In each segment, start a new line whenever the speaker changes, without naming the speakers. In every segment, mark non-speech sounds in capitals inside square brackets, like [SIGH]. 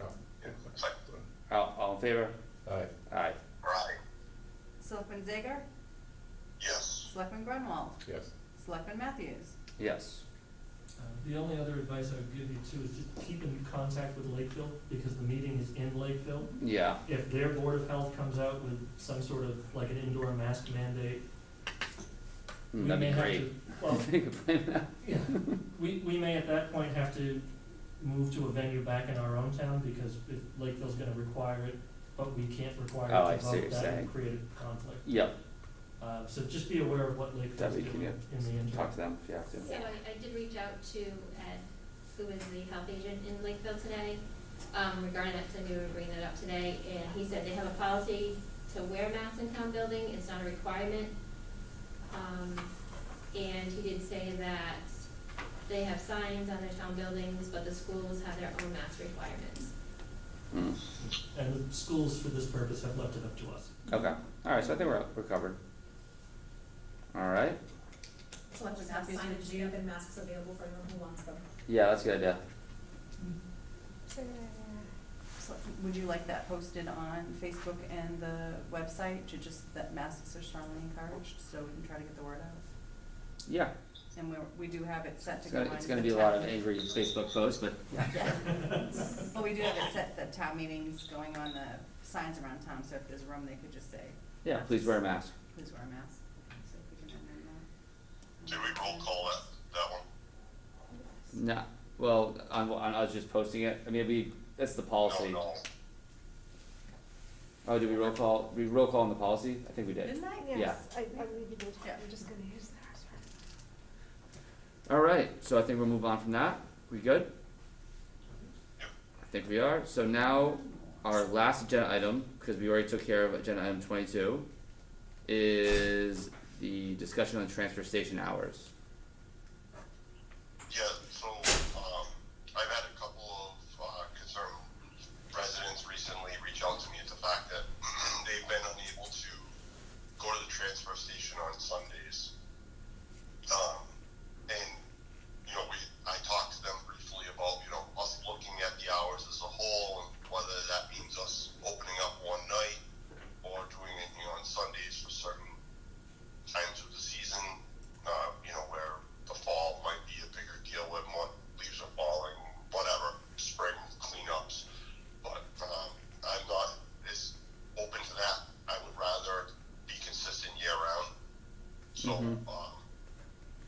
Oh,
All, all in favor?
Aye.
Aye.
Right,
Selectman Zager?
yes,
Selectman Grunwald?
Yes.
Selectman Matthews?
Yes.
Uh, The only other advice I would give you too is just keep in contact with Lakeville, because the meeting is in Lakeville.
Yeah.
If their Board of Health comes out with some sort of, like an indoor mask mandate, we
Mm,
may
That'd be
have
great. [LAUGHS]
to, well,
They could play that.
yeah, we, we may at that point have to move to a venue back in our own town, because if Lakeville's gonna require it, but we can't require
Oh, I
it to
see what
vote,
you're
that
saying.
would create a conflict.
Yep,
Uh, so just be aware of what Lakeville's
That'd be
doing in the interim.
talk to them if you have to.
So I, I did reach out to Ed, who is the health agent in Lakeville today, um, regarding that, because I knew we were bringing that up today, and he said they have a policy to wear masks in town building, it's not a requirement. Um, and he did say that they have signs on their town buildings, but the schools have their own mask requirements.
Mm,
And the schools for this purpose have left it up to us.
Okay, alright, so I think we're, we're covered. Alright,
So let's just have
Matthews,
signage,
would you-
do and masks available for anyone who wants them?
yeah, that's a good idea.
Selectman- Would you like that posted on Facebook and the website to just, that masks are strongly encouraged, so we can try to get the word out?
Yeah,
And we're, we do have it set to
it's
go on.
gonna, it's gonna
the
be a lot
town-
of angry Facebook posts, but yeah.
Yeah. But we do have it set, that town meetings going on the signs around town, so if there's room, they could just say,
[LAUGHS] Yeah, please wear a mask.
please wear a mask. So if we can amend that.
did we roll call that, that one?
Nah, well, on, on us just posting it, I mean, it'd be, that's the policy.
No, no,
Oh, did we roll call, we roll call on the policy? I think we did.
Didn't I?
Yeah.
Yes, I, I believe you did,
Yeah.
I'm just gonna use that as well.
Alright, so I think we'll move on from that. We good? I think we are. So now, our last agenda item, because we already took care of agenda item twenty-two, is the discussion on transfer station hours.
yeah, so, um, I've had a couple of, uh, concerned residents recently reach out to me at the fact that [CLEARS THROAT] they've been unable to go to the transfer station on Sundays. Um, and, you know, we, I talked to them briefly about, you know, us looking at the hours as a whole, and whether that means us opening up one night or doing anything on Sundays for certain times of the season, uh, you know, where the fall might be a bigger deal when more leaves are falling, whatever, spring cleanups. But um, I'm not as open to that. I would rather be consistent year round. So,
Mhm.
um,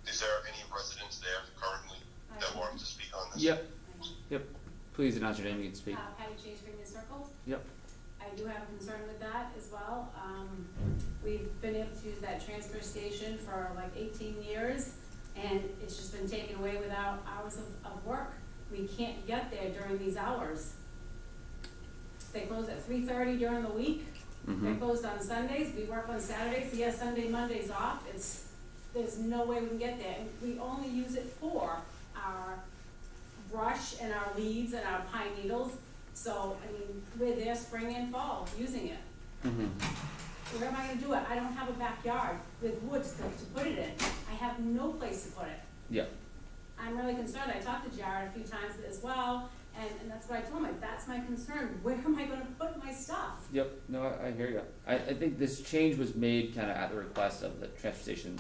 is there any residents there currently that want to speak on this?
Yep, yep. Please announce your name, you can speak.
Uh, Patty Chase, Freeman Circle.
Yep.
I do have a concern with that as well. Um, we've been able to use that transfer station for like eighteen years, and it's just been taken away without hours of, of work. We can't get there during these hours. They close at three thirty during the week. They're
Mhm.
closed on Sundays. We work on Saturdays. He has Sunday, Mondays off. It's, there's no way we can get there. And we only use it for our brush and our leaves and our pine needles. So, I mean, we're there spring and fall using it.
Mhm.
Where am I gonna do it? I don't have a backyard with woods to, to put it in. I have no place to put it.
Yeah.
I'm really concerned. I talked to Jared a few times as well, and, and that's what I told him. Like, That's my concern. Where am I gonna put my stuff?
Yep, no, I, I hear you. I, I think this change was made kinda at the request of the transfer station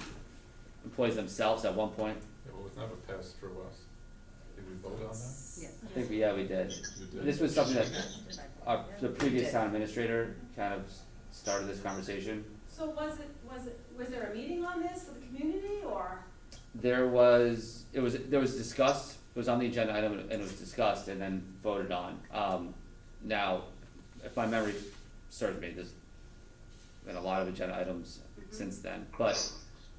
employees themselves at one point.
Yeah, well, it's never passed through us. Did we vote on that?
Yeah.
I think, we- yeah, we did.
You did?
This was something that our, Uh, the
Yeah.
previous town administrator kind of s- started this conversation.
So was it, was it, was there a meeting on this for the community or?
There was, it was, there was discussed, it was on the agenda item and it was discussed and then voted on. Um, now, if my memory serves me, there's been a lot of agenda items since then, but,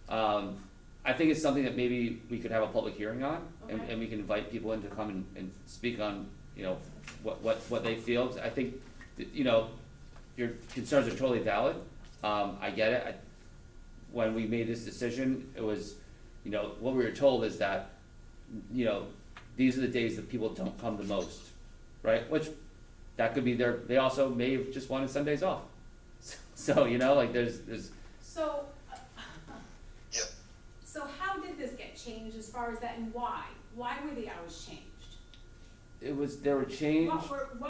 um, I think it's something that maybe we could have a public hearing on and,
Okay.
and we can invite people in to come and, and speak on, you know, what, what, what they feel. 'Cause I think, that, you know, your concerns are totally valid. Um, I get it. I, when we made this decision, it was, you know, what we were told is that, you know, these are the days that people don't come the most, right? Which, that could be their, they also may have just wanted some days off. [LAUGHS] So, you know, like there's, there's,
So. uh,
Yeah.
So how did this get changed as far as that and why? Why were the hours changed?
it was, there were change.
What were, what